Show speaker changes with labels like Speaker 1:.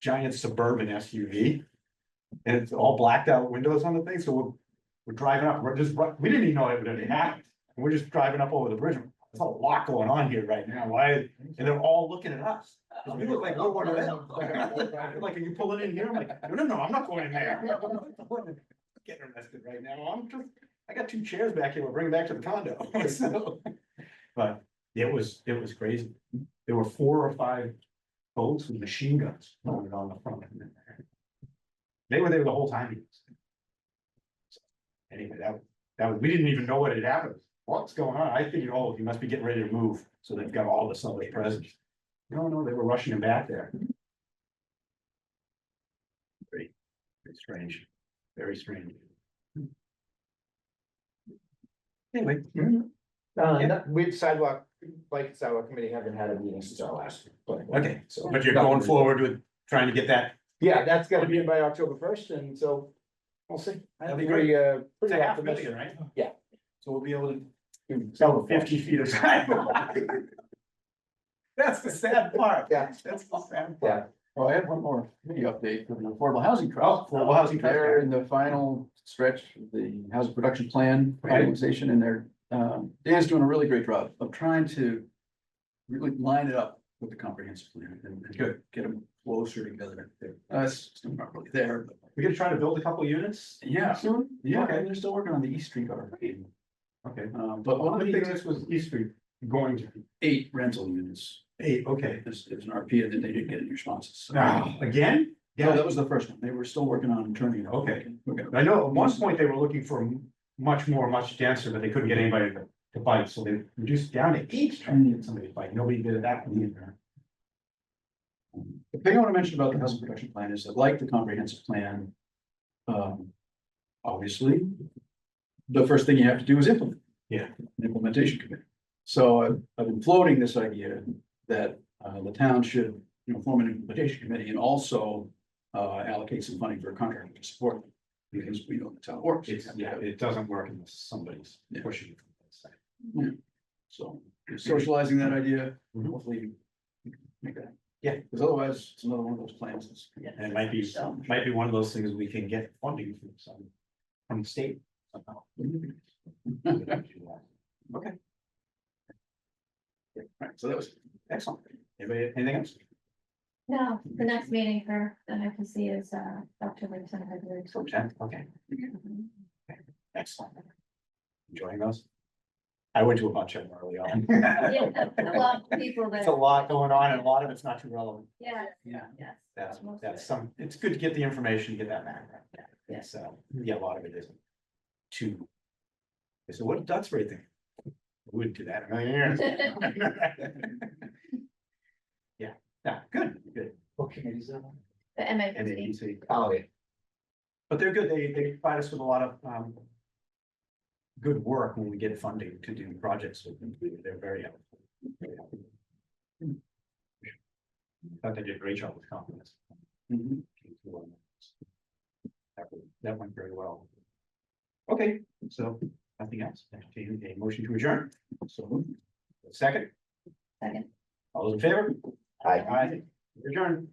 Speaker 1: giant suburban SUV. And it's all blacked out windows on the thing, so we're, we're driving up, we're just, we didn't even know it would happen. And we're just driving up over the bridge, there's a lot going on here right now, why, and they're all looking at us. 'Cause we look like we're one of them. Like, are you pulling in here? I'm like, no, no, no, I'm not going in there. Getting arrested right now. I'm just, I got two chairs back here. We'll bring it back to the condo. So, But it was, it was crazy. There were four or five boats with machine guns mounted on the front. end there. They were there the whole time. So, Anyway, that, that, was- we didn't even know what had happened. What's going on? I figured, oh, he must be getting ready to move. So they've got all the subway presents. No, no, they were rushing him back there. Very, very strange, very strange. Anyway, mm-hmm.
Speaker 2: Uh, with sidewalk, like sidewalk committee haven't had a meeting since our last. planning board,
Speaker 1: Okay,
Speaker 2: so-
Speaker 1: but you're going forward with trying to get that,
Speaker 2: Yeah, that's gotta be in by October first, and so we'll see.
Speaker 1: That'd be
Speaker 2: Pretty, uh,
Speaker 1: it's
Speaker 2: Pretty
Speaker 1: a half a
Speaker 2: optimistic.
Speaker 1: million, right?
Speaker 2: Yeah.
Speaker 1: So we'll be able to
Speaker 2: So
Speaker 1: sell fifty feet of sidewalk. That's the sad part.
Speaker 2: Yeah.
Speaker 1: That's the sad part.
Speaker 2: Yeah,
Speaker 3: Oh, I have one more committee update for the affordable housing trust.
Speaker 1: Oh, affordable housing trust,
Speaker 3: They're in the final stretch of the housing production plan
Speaker 1: Right.
Speaker 3: organization and they're, um, Dan's doing a really great job of trying to really line it up with the comprehensive plan and and
Speaker 1: Good.
Speaker 3: get them closer together. Uh, it's still not really there, but
Speaker 1: We're gonna try to build a couple units?
Speaker 3: yeah,
Speaker 1: Soon?
Speaker 3: yeah,
Speaker 1: Okay.
Speaker 3: and they're still working on the East Street already.
Speaker 1: Okay.
Speaker 3: Um, but
Speaker 1: One of the things
Speaker 3: is
Speaker 1: this was East Street going to be
Speaker 3: eight rental units,
Speaker 1: eight, okay.
Speaker 3: there's, there's an RP and then they didn't get any responses. so-
Speaker 1: Now, again?
Speaker 3: No, that was the first one. They were still working on turning it. over.
Speaker 1: Okay.
Speaker 3: We're gonna-
Speaker 1: I know at one point they were looking for m- much more, much denser, but they couldn't get anybody to to bite, so they reduced down to eight, trying to get somebody to bite, nobody did that one either.
Speaker 3: The thing I want to mention about the housing production plan is that like the comprehensive plan. Um, obviously. The first thing you have to do is implement.
Speaker 1: Yeah.
Speaker 3: An Implementation committee. So I've, I've been floating this idea that, uh, the town should, you know, form an implementation committee and also. Uh, allocate some funding for a contractor to support them, because we know the town works.
Speaker 1: It's, yeah, it doesn't work unless somebody's
Speaker 3: Yeah.
Speaker 1: pushing it from that side.
Speaker 3: So socializing that idea,
Speaker 1: Mhm.
Speaker 3: hopefully. we can Make that.
Speaker 1: Yeah.
Speaker 3: Because otherwise, it's another one of those plans that's.
Speaker 1: And it might be, might be one of those things we can get funding from some, from the state somehow.
Speaker 3: Right, so that was
Speaker 1: Excellent. Anybody, anything else?
Speaker 4: No, the next meeting for the NFPC is uh October tenth, I believe.
Speaker 1: So, Jen, okay, excellent. Enjoying those? I went to a bunch of them early on.
Speaker 4: Yeah, a lot of people
Speaker 1: It's a
Speaker 4: that,
Speaker 1: lot going on and a lot of it's not too relevant.
Speaker 4: yeah,
Speaker 3: Yeah.
Speaker 4: yes.
Speaker 1: That's,
Speaker 4: Most of
Speaker 1: that's
Speaker 4: it.
Speaker 1: some, it's good to get the information, get that background.
Speaker 4: Yeah.
Speaker 1: So, yeah, a lot of it isn't. Too. I said, what did Duxbury think? We Wouldn't do that. in a million years. Yeah, yeah, good, good.
Speaker 2: what committee is that on?
Speaker 4: The
Speaker 1: And then you
Speaker 4: MFPC,
Speaker 1: see,
Speaker 2: Oh, yeah.
Speaker 1: but they're good. They, they provide us with a lot of, um. Good work when we get funding to do projects with them. They're very helpful. Very helpful. Thought they did a great job with compliments.
Speaker 3: Mhm.
Speaker 1: That went- That went very well. Okay, so nothing else. Entertain a motion to adjourn.
Speaker 3: So moved.
Speaker 1: Second,
Speaker 4: second.
Speaker 1: all those in favor?
Speaker 2: Aye.
Speaker 1: Aye. Adjourn.